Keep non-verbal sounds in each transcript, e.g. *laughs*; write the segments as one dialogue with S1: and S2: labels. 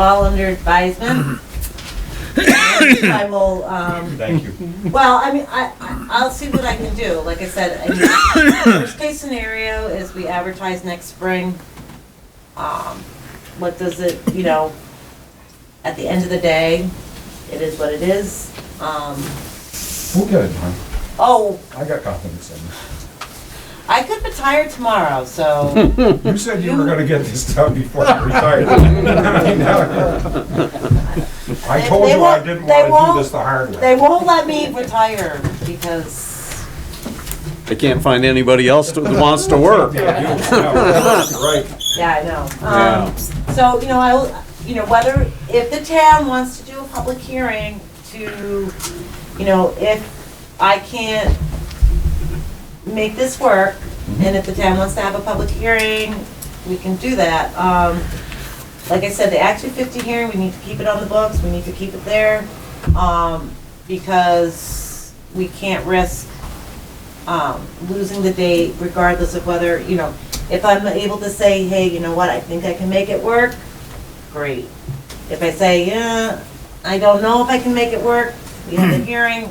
S1: all under advisement. And I will, um,
S2: Thank you.
S1: well, I mean, I, I- I'll see what I can do. Like I said, I mean, worst case scenario is we advertise next spring. Um, what does it, you know, at the end of the day, it is what it is. Um,
S2: *laughs* We'll get it done.
S1: oh,
S2: I got confidence in
S1: I could retire tomorrow, so,
S2: you. You said you were gonna get this done before you
S1: *laughs*
S2: retired. I mean, now- I told
S1: They
S2: you I
S1: won't-
S2: didn't
S1: they
S2: wanna
S1: won't-
S2: do this the hard
S1: they
S2: way.
S1: won't let me retire because,
S3: I can't find anybody else that wants to
S2: *laughs*
S3: work.
S2: Yeah, you- yeah, you're Right.
S1: yeah, I know. Um,
S3: Yeah.
S1: So, you know, I, will you know, whether, if the town wants to do a public hearing to, you know, if I can't make this work, and if the town wants to have a public hearing, we can do that. Um, Like I said, the Act 250 hearing, we need to keep it on the books, we need to keep it there, um, because we can't risk um, losing the date regardless of whether, you know, if I'm able to say, hey, you know what, I think I can make it work, great. If I say, yeah, I don't know if I can make it work, we have a hearing,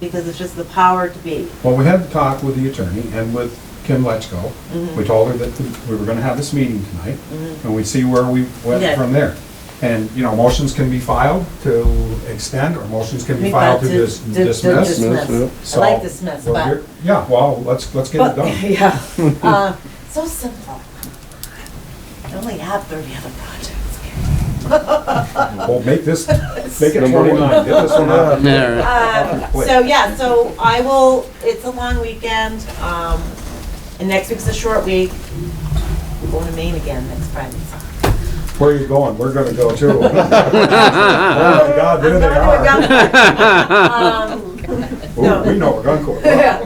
S1: because it's just the power to be.
S2: Well, we had the talk with the attorney and with Kim Letchko.
S1: Mm-hmm.
S2: We told her that we were gonna have this meeting tonight, and we'd see where we
S1: Yeah.
S2: went from there. And, you know, motions can be filed to extend, or motions can be
S1: We
S2: filed
S1: filed
S2: to dis-
S1: to- to- to
S2: dismiss.
S1: dismiss. I
S2: So,
S1: like dismiss,
S2: well,
S1: but,
S2: you're- Yeah, well, let's, let's get it
S1: but- *laughs*
S2: done.
S1: yeah,
S2: *laughs*
S1: Uh, so simple. I only have thirty other projects.
S2: Well, make this, make it
S4: Number one.
S2: twenty-nine, get this one out.
S1: Um,
S3: Yeah.
S2: Wait.
S1: So, yeah, so I will, it's a long weekend, um, and next week's a short week. We're going to Maine again next Friday.
S2: Where are you going? We're gonna go too. Oh my God, there they
S1: I'm going
S2: are.
S1: to Guncourt. Um,
S2: Ooh, we know we're gonna go.
S1: Yeah.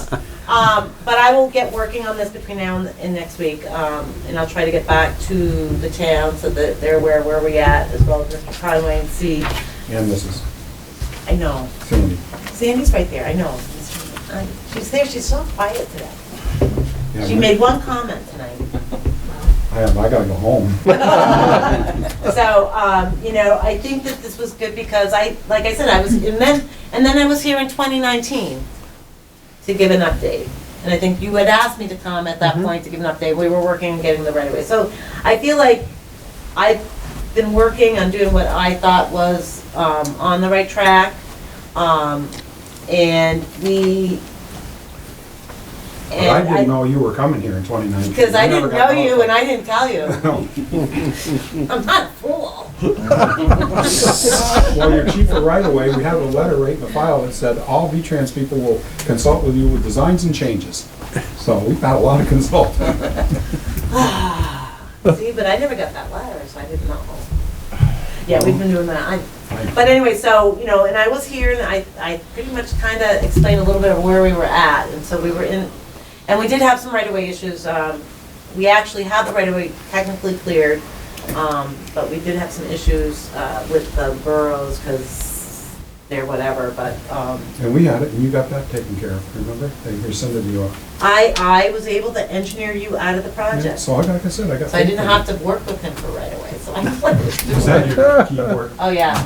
S1: Anyways, Um, but I will get working on this between now and, and next week, um, and I'll try to get back to the town so that they're aware where we at, as well as Mr. Conway and see,
S2: And Mrs.
S1: I know,
S2: Cindy.
S1: Sandy's right there, I know. I- She's there, she's so quiet today.
S2: Yeah,
S1: She
S2: we-
S1: made one comment
S2: *laughs*
S1: tonight.
S2: I am, I gotta go home.
S1: *laughs* So, um, you know, I think that this was good because I, like I said, I was, and then, and then I was here in 2019 to give an update. And I think you had asked me to come at that
S2: Mm-hmm.
S1: point to give an update. We were working on getting the right of way. So I feel like I've been working on doing what I thought was um, on the right track. Um, and we.
S2: But I
S1: and
S2: didn't know you were coming here in 2019.
S1: Because I didn't know you and I didn't tell you.
S2: *laughs* No.
S1: I'm not a fool. *sighs*
S2: Well, your chief of right-of-way, we have a letter right in the file that said, all V-Trans people will consult with you with designs and changes. So we've had a lot of consult.
S1: See, but I never got that letter, so I didn't know. Yeah, we've been doing that. I- But anyway, so, you know, and I was here and I, I pretty much kind of explained a little bit of where we were at. And so we were in, and we did have some right-of-way issues. Um, We actually have the right-of-way technically cleared, um, but we did have some issues uh, with the boroughs because they're whatever, but, um,
S2: And we had it, and you got that taken care of, remember? They rescinded you off.
S1: I, I was able to engineer you out of the project.
S2: So I got, like I said, I got.
S1: So I didn't have to work with him for right-of-way, so I,
S2: Is that your keyword?
S1: oh yeah.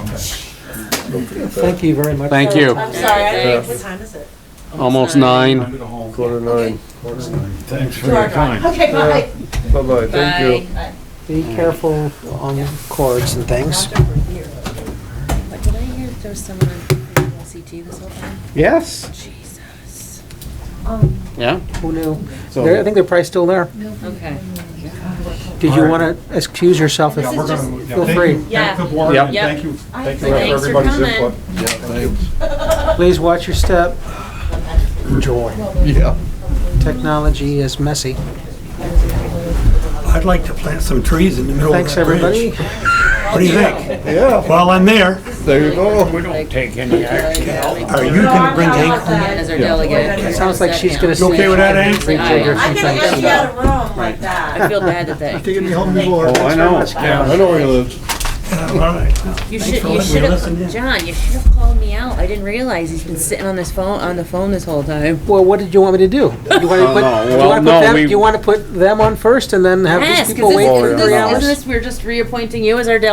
S5: Thank you very much.
S3: Thank you.
S1: I'm sorry, I didn't, what time is it?
S3: Almost nine.
S2: Under the home.
S4: Quarter to nine.
S2: Quarter to nine.
S4: Thanks
S1: Two hour drive. Okay, bye.
S4: Bye-bye, thank you.
S1: Bye.
S5: Be careful on cords and things.
S1: Knocked over here.
S6: But did I hear there was someone on LCT this whole time?
S5: Yes.
S6: Jesus.
S3: Yeah?
S5: Who knew? They're- I think they're probably still there.
S6: Okay.
S5: Did you
S2: All right.
S5: want to excuse yourself? if-
S2: Yeah, we're gonna- yeah,
S5: feel
S2: thank
S5: free.
S2: you. Thank the
S6: Yeah.
S2: board, and
S3: Yep.
S2: thank you, thank you for
S6: Thanks for
S2: everybody's
S6: coming.
S2: input.
S5: Please watch your step. Enjoy.
S4: Yeah.
S5: Technology is messy.
S7: I'd like to plant some trees in the
S3: Oh,
S7: middle of
S5: Thanks,
S7: that bridge.
S5: everybody.
S7: What do you think?
S4: Yeah,
S7: While I'm there,
S4: there you go.
S7: are you gonna bring Hank?
S6: As our delegate.
S1: It
S5: Sounds like she's going to.
S7: You okay with that, Hank?
S5: Rejigger
S1: I
S5: some
S1: gotta
S5: things.
S1: get you out of room like that.
S6: I feel bad that they.
S7: Taking me home before.
S3: Oh, I know.
S4: Yeah, I know where he lives.
S7: Yeah, All right. Well,
S6: You
S7: thanks
S6: should,
S7: for
S6: you
S7: letting me
S6: should
S7: listen in.
S6: have, John, you should have called me out. I didn't realize he's been sitting on this phone, on the phone this whole time.
S5: Well, what did you want me to do? You want to
S3: No,
S5: put,
S3: Uh, no,
S5: do you
S3: well,
S5: want to
S3: no,
S5: put them,
S3: we-
S5: do you want to put them on first and then have
S6: Yes,
S5: these people
S6: because this,
S5: wait
S6: isn't
S5: for three
S6: this, isn't
S5: hours?
S6: this, we're just reappointing you as our delegate